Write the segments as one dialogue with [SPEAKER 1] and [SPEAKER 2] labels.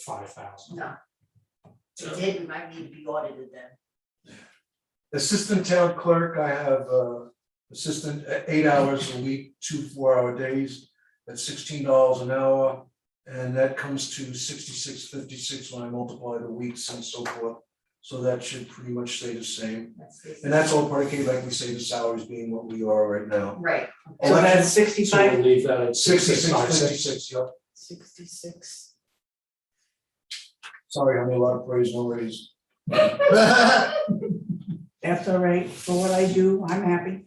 [SPEAKER 1] five thousand.
[SPEAKER 2] No,
[SPEAKER 1] So,
[SPEAKER 2] it didn't, I need to be audited then.
[SPEAKER 3] Assistant town clerk, I have uh assistant uh, eight hours a week, two four hour days at sixteen dollars an hour. And that comes to sixty six fifty six when I multiply the weeks and so forth. So that should pretty much stay the same.
[SPEAKER 2] That's the-
[SPEAKER 3] And that's all predicated, like we say, the salaries being what we are right now.
[SPEAKER 2] Right,
[SPEAKER 1] So that's So we'll
[SPEAKER 4] sixty-five,
[SPEAKER 1] leave that at
[SPEAKER 3] Sixty six
[SPEAKER 1] sixty-five,
[SPEAKER 3] fifty
[SPEAKER 1] six.
[SPEAKER 3] six, yep.
[SPEAKER 4] sixty-six.
[SPEAKER 3] Sorry, I made a lot of praise, no raise.
[SPEAKER 4] That's all right, for what I do, I'm happy.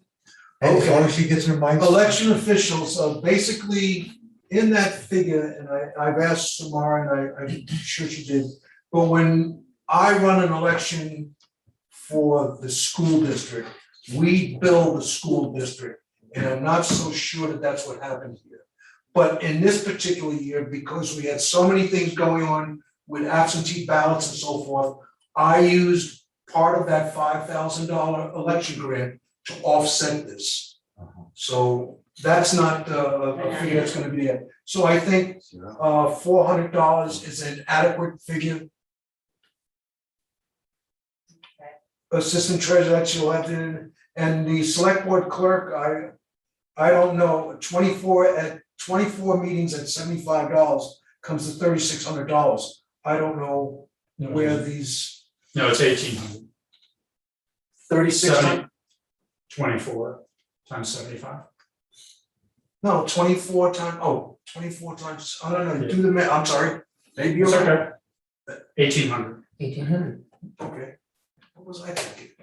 [SPEAKER 5] Hey, as long as she gets her mind.
[SPEAKER 3] Election officials, uh, basically, in that figure, and I, I've asked Samara, and I, I'm sure she did, but when I run an election for the school district, we bill the school district, and I'm not so sure that that's what happened here. But in this particular year, because we had so many things going on with absentee ballots and so forth, I used part of that five thousand dollar election grant to offset this. So that's not uh, a figure that's gonna be it. So I think uh four hundred dollars is an adequate figure. Assistant treasurer, that you'll have to, and the select board clerk, I I don't know, twenty-four at twenty-four meetings at seventy-five dollars comes to thirty-six hundred dollars. I don't know where
[SPEAKER 1] Mm-hmm.
[SPEAKER 3] these
[SPEAKER 1] No, it's eighteen hundred,
[SPEAKER 3] thirty-six,
[SPEAKER 1] Seventy. twenty-four times seventy-five.
[SPEAKER 3] no, twenty-four times, oh, twenty-four times, I don't know, do the math, I'm sorry. Maybe you're
[SPEAKER 1] It's
[SPEAKER 3] right.
[SPEAKER 1] okay. Eighteen hundred,
[SPEAKER 5] Eighteen hundred.
[SPEAKER 3] Okay, what was I thinking?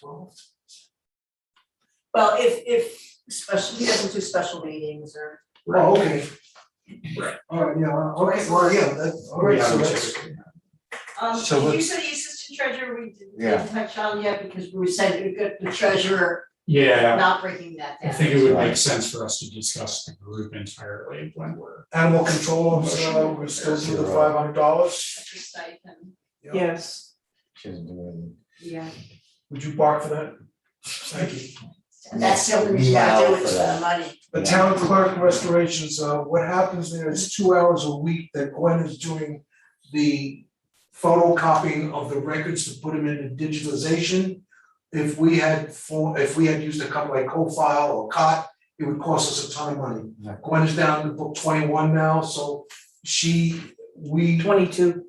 [SPEAKER 3] Twelve?
[SPEAKER 2] well, if, if, special, he doesn't do special meetings or,
[SPEAKER 3] Oh, okay.
[SPEAKER 1] Right.
[SPEAKER 3] All right, yeah, all right, well, yeah, that's, all right,
[SPEAKER 1] Yeah,
[SPEAKER 3] so
[SPEAKER 1] we
[SPEAKER 3] that's,
[SPEAKER 1] check it.
[SPEAKER 2] um,
[SPEAKER 5] So
[SPEAKER 2] you
[SPEAKER 5] let's-
[SPEAKER 2] said the assistant treasurer, we didn't-
[SPEAKER 5] Yeah.
[SPEAKER 2] didn't touch on yet, because we said we got the treasurer
[SPEAKER 1] Yeah,
[SPEAKER 2] not breaking that
[SPEAKER 1] I
[SPEAKER 2] down.
[SPEAKER 1] think it would make
[SPEAKER 5] Right.
[SPEAKER 1] sense for us to discuss the group entirely when we're.
[SPEAKER 3] animal control officer, we still do the five hundred dollars,
[SPEAKER 2] That's a stipend.
[SPEAKER 3] Yeah.
[SPEAKER 4] Yes,
[SPEAKER 5] She doesn't do anything.
[SPEAKER 2] Yeah.
[SPEAKER 3] would you bark for that? Thank you.
[SPEAKER 2] And that's the only reason I do
[SPEAKER 5] Meow
[SPEAKER 2] it,
[SPEAKER 5] for
[SPEAKER 2] it's for the
[SPEAKER 5] that.
[SPEAKER 2] money.
[SPEAKER 3] The
[SPEAKER 5] Yeah.
[SPEAKER 3] town clerk restorations, uh, what happens there is two hours a week that Gwen is doing the photocopying of the records to put them into digitalization. If we had for, if we had used a couple like co-file or COT, it would cost us a ton of money.
[SPEAKER 5] Yeah.
[SPEAKER 3] Gwen is down to book twenty-one now, so she, we,
[SPEAKER 4] twenty-two,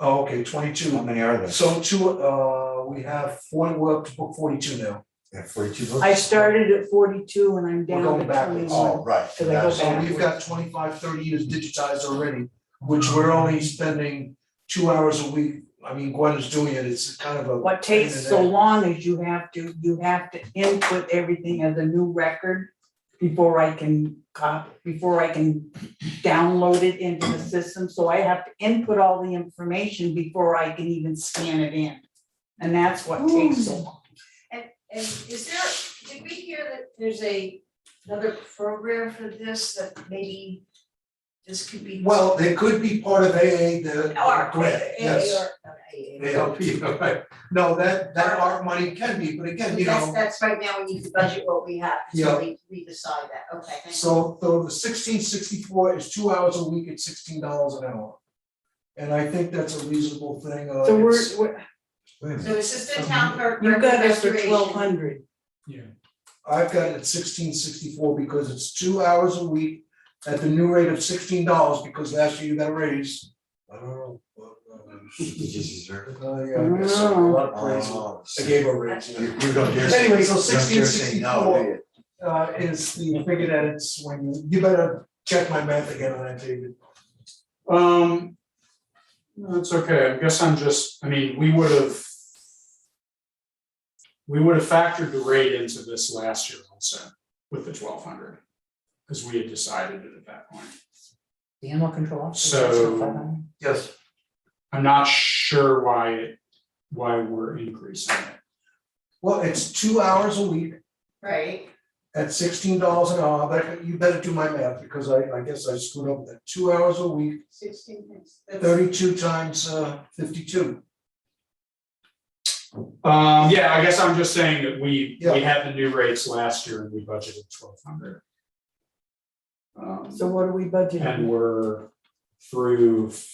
[SPEAKER 3] oh, okay, twenty-two.
[SPEAKER 5] How many are there?
[SPEAKER 3] So two, uh, we have one, we're up to book forty-two now.
[SPEAKER 5] Yeah, forty-two books?
[SPEAKER 4] I started at forty-two and I'm down
[SPEAKER 3] We're
[SPEAKER 4] to
[SPEAKER 3] going backwards.
[SPEAKER 5] Oh,
[SPEAKER 4] twenty-one.
[SPEAKER 5] right.
[SPEAKER 4] Cause I go
[SPEAKER 3] So we've got 25, 30 years digitized already, which we're only spending two hours a week. I mean, Gwen is doing it, it's kind of a.
[SPEAKER 4] What takes so long is you have to, you have to input everything as a new record before I can cop, before I can download it into the system, so I have to input all the information before I can even scan it in. And that's what takes so long.
[SPEAKER 2] And is there, did we hear that there's a, another program for this, that maybe this could be.
[SPEAKER 3] Well, they could be part of AA, the
[SPEAKER 2] Or,
[SPEAKER 3] grant, yes.
[SPEAKER 2] or- not AA.
[SPEAKER 3] ALP, right. No, that, that art money can be, but again, you
[SPEAKER 2] That's,
[SPEAKER 3] know,
[SPEAKER 2] that's right now, we need to budget what we have, so we, we decide that, okay, thank you.
[SPEAKER 3] so, so the sixteen sixty-four is two hours a week at sixteen dollars an hour. And I think that's a reasonable thing, uh,
[SPEAKER 4] So we're,
[SPEAKER 3] it's-
[SPEAKER 4] we're,
[SPEAKER 5] Wait a minute.
[SPEAKER 2] So assistant
[SPEAKER 3] um,
[SPEAKER 2] town clerk.
[SPEAKER 4] you've got us for
[SPEAKER 2] restoration.
[SPEAKER 4] twelve hundred.
[SPEAKER 1] Yeah.
[SPEAKER 3] I've got it sixteen sixty-four because it's two hours a week at the new rate of sixteen dollars because last year you got a raise. I don't know. what,
[SPEAKER 5] Did you deserve it?
[SPEAKER 3] uh, uh, yeah, I guess so. a lot of praise.
[SPEAKER 5] Oh,
[SPEAKER 3] I gave her a raise.
[SPEAKER 5] You,
[SPEAKER 3] yeah.
[SPEAKER 5] you don't dare say.
[SPEAKER 3] Anyway, so
[SPEAKER 5] you don't dare say no, do you?
[SPEAKER 3] Uh, is the figure that it's when you, you better check my math again on that, David.
[SPEAKER 1] Um, no, it's okay, I guess I'm just, I mean, we would have. We would have factored the rate into this last year also with the twelve hundred. Cause we had decided it at that point.
[SPEAKER 6] The animal control officer.
[SPEAKER 1] So-
[SPEAKER 6] that's not five hundred.
[SPEAKER 3] Yes.
[SPEAKER 1] I'm not sure why it, why we're increasing it.
[SPEAKER 3] Well, it's two hours a week
[SPEAKER 2] Right,
[SPEAKER 3] at sixteen dollars an hour, but you better do my math because I, I guess I screwed up that, two hours a week,
[SPEAKER 2] sixteen, that's- that's-
[SPEAKER 3] thirty-two times uh fifty-two.
[SPEAKER 1] Um, yeah, I guess I'm just saying that we,
[SPEAKER 3] Yeah.
[SPEAKER 1] we had the new rates last year and we budgeted twelve hundred. Um,
[SPEAKER 4] So what are we budgeting?
[SPEAKER 1] and we're through